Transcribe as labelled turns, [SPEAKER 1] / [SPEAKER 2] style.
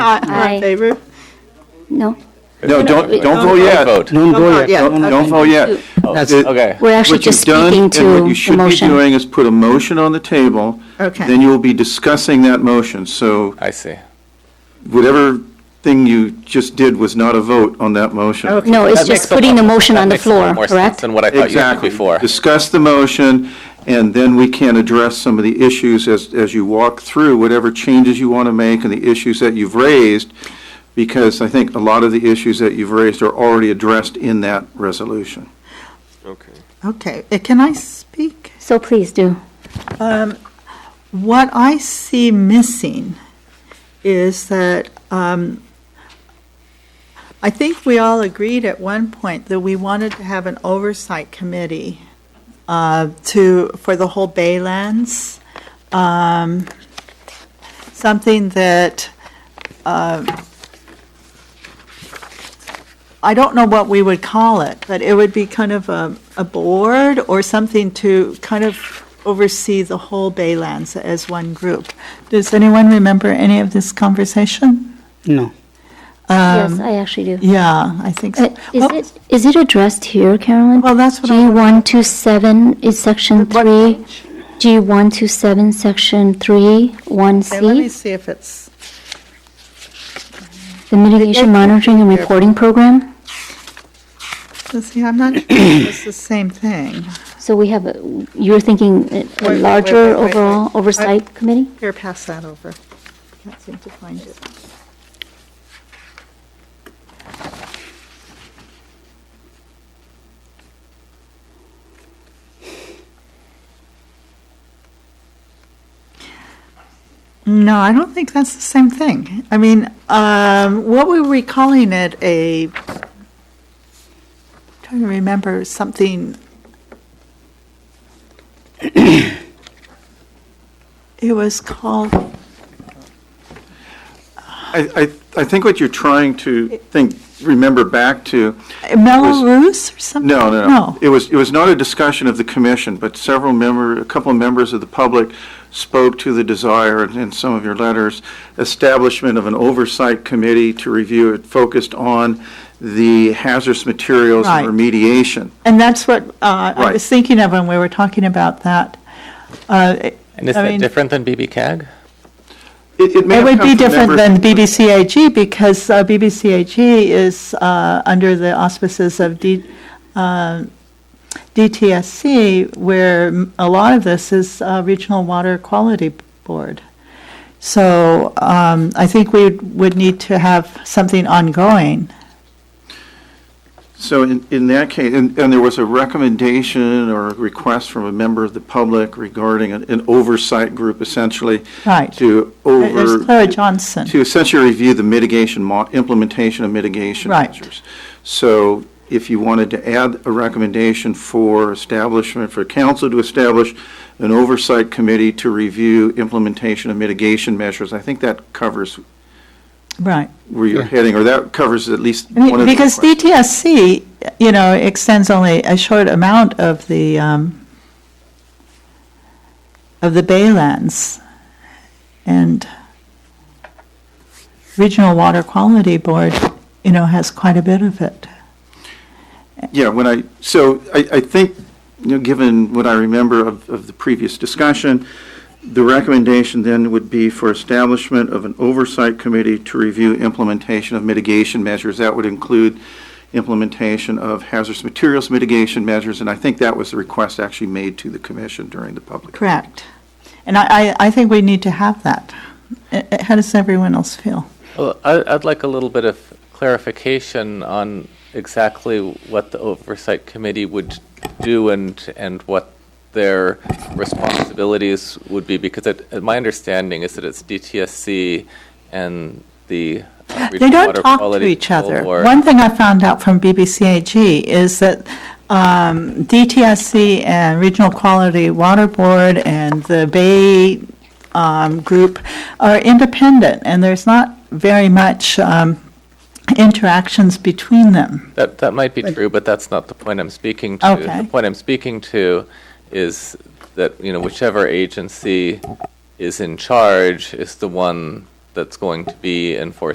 [SPEAKER 1] All
[SPEAKER 2] Aye.
[SPEAKER 1] in favor?
[SPEAKER 2] No,
[SPEAKER 3] No, don't, don't vote yet.
[SPEAKER 4] Vote.
[SPEAKER 1] Don't
[SPEAKER 5] Don't go
[SPEAKER 1] vote yet.
[SPEAKER 5] yet.
[SPEAKER 3] Don't don't vote yet.
[SPEAKER 5] That's-
[SPEAKER 3] It-
[SPEAKER 4] Okay.
[SPEAKER 2] we're actually
[SPEAKER 3] What you've
[SPEAKER 2] just speaking
[SPEAKER 3] done
[SPEAKER 2] to
[SPEAKER 3] And what
[SPEAKER 2] the
[SPEAKER 3] you should be
[SPEAKER 2] motion.
[SPEAKER 3] doing is put a motion on the table.
[SPEAKER 1] Okay.
[SPEAKER 3] Then you will be discussing that motion. So
[SPEAKER 4] I see.
[SPEAKER 3] whatever thing you just did was not a vote on that motion.
[SPEAKER 1] Okay.
[SPEAKER 2] No, it's
[SPEAKER 4] That makes
[SPEAKER 2] just
[SPEAKER 4] a
[SPEAKER 2] putting
[SPEAKER 4] lot-
[SPEAKER 2] the motion
[SPEAKER 4] that
[SPEAKER 2] on the
[SPEAKER 4] makes a lot
[SPEAKER 2] floor,
[SPEAKER 4] more sense
[SPEAKER 2] correct?
[SPEAKER 4] Than what I thought you did
[SPEAKER 3] Exactly.
[SPEAKER 4] before.
[SPEAKER 3] Discuss the motion, and then we can address some of the issues as, as you walk through whatever changes you want to make and the issues that you've raised, because I think a lot of the issues that you've raised are already addressed in that resolution.
[SPEAKER 6] Okay.
[SPEAKER 1] Okay, Uh, can I speak?
[SPEAKER 2] So please do.
[SPEAKER 1] What I see missing is that um, I think we all agreed at one point that we wanted to have an oversight committee uh, to, for the whole Baylands. Um, Something that, uh, I don't know what we would call it, but it would be kind of a, a board or something to kind of oversee the whole Baylands as one group. Does anyone remember any of this conversation?
[SPEAKER 5] No.
[SPEAKER 2] Yes, I actually do.
[SPEAKER 1] Yeah, I think
[SPEAKER 2] Uh,
[SPEAKER 1] so. Um,
[SPEAKER 2] Is
[SPEAKER 1] Well,
[SPEAKER 2] it, is it addressed here, Carolyn?
[SPEAKER 1] Well, that's what I-
[SPEAKER 2] G127 is section
[SPEAKER 1] What
[SPEAKER 2] 3, G127, section 3,
[SPEAKER 1] okay, Let me
[SPEAKER 2] 1C,
[SPEAKER 1] see if it's,
[SPEAKER 2] the mitigation monitoring and reporting program.
[SPEAKER 1] let's see, I'm not sure if it's the same thing.
[SPEAKER 2] So we have, a- you're thinking a-
[SPEAKER 1] wait,
[SPEAKER 2] a
[SPEAKER 1] wait,
[SPEAKER 2] larger
[SPEAKER 1] wait, wait, wait.
[SPEAKER 2] overall
[SPEAKER 1] I-
[SPEAKER 2] oversight committee?
[SPEAKER 1] Here, pass that over. Can't seem to find it. No, I don't think that's the same thing. I mean, um, what were we calling it? A, trying to remember something. It was called,
[SPEAKER 3] I, I, I think what you're trying to think, remember back to,
[SPEAKER 1] Melrose or something?
[SPEAKER 3] no, no, no. It was, it was not a discussion of the commission, but several member, a couple of members of the public spoke to the desire in- in some of your letters, establishment of an oversight committee to review it focused on the hazardous materials and
[SPEAKER 1] Right.
[SPEAKER 3] remediation.
[SPEAKER 1] And that's what uh, I
[SPEAKER 3] Right.
[SPEAKER 1] was thinking of when we were talking about that. Uh, it-
[SPEAKER 4] And is
[SPEAKER 1] I
[SPEAKER 4] that
[SPEAKER 1] mean,
[SPEAKER 4] different than BB CAG?
[SPEAKER 3] It, it may
[SPEAKER 1] It
[SPEAKER 3] have
[SPEAKER 1] would
[SPEAKER 3] come
[SPEAKER 1] be
[SPEAKER 3] from
[SPEAKER 1] different
[SPEAKER 3] members-
[SPEAKER 1] than BBCAG because uh, BBCAG is uh, under the auspices of D- uh, DTSC, where a lot of this is uh, Regional Water Quality Board. So um, I think we would need to have something ongoing.
[SPEAKER 3] So in, in that case, and, and there was a recommendation or a request from a member of the public regarding an, an oversight group essentially.
[SPEAKER 1] Right.
[SPEAKER 3] To
[SPEAKER 1] There's
[SPEAKER 3] over.
[SPEAKER 1] Clara Johnson.
[SPEAKER 3] To essentially review the mitigation, mo- implementation of mitigation
[SPEAKER 1] Right.
[SPEAKER 3] measures. So if you wanted to add a recommendation for establishment, for council to establish an oversight committee to review implementation of mitigation measures, I think that covers
[SPEAKER 1] Right.
[SPEAKER 3] where you're heading, or that covers at least
[SPEAKER 1] I
[SPEAKER 3] one of the
[SPEAKER 1] mean, Because
[SPEAKER 3] requests.
[SPEAKER 1] DTSC, you know, extends only a short amount of the, um, of the baylands. And Regional Water Quality Board, you know, has quite a bit of it.
[SPEAKER 3] Yeah, when I, so I, I think, you know, given what I remember of, of the previous discussion, the recommendation then would be for establishment of an oversight committee to review implementation of mitigation measures. That would include implementation of hazardous materials mitigation measures, and I think that was the request actually made to the commission during the public.
[SPEAKER 1] Correct. And I, I, I think we need to have that. Uh, uh, How does everyone else feel?
[SPEAKER 4] Well, I, I'd like a little bit of clarification on exactly what the oversight committee would do and, and what their responsibilities would be, because it, uh, my understanding is that it's DTSC and the.
[SPEAKER 1] They
[SPEAKER 4] uh, Regional
[SPEAKER 1] don't
[SPEAKER 4] Water
[SPEAKER 1] talk to
[SPEAKER 4] Quality
[SPEAKER 1] each other.
[SPEAKER 4] Board.
[SPEAKER 1] One thing I found out from BBCAG is that um, DTSC and Regional Quality Water Board and the Bay um, Group are independent, and there's not very much um, interactions between them.
[SPEAKER 4] That, that might be true, but that's not the point I'm speaking to.
[SPEAKER 1] Okay.
[SPEAKER 4] The point I'm speaking to is that, you know, whichever agency is in charge is the one that's going to be enforcing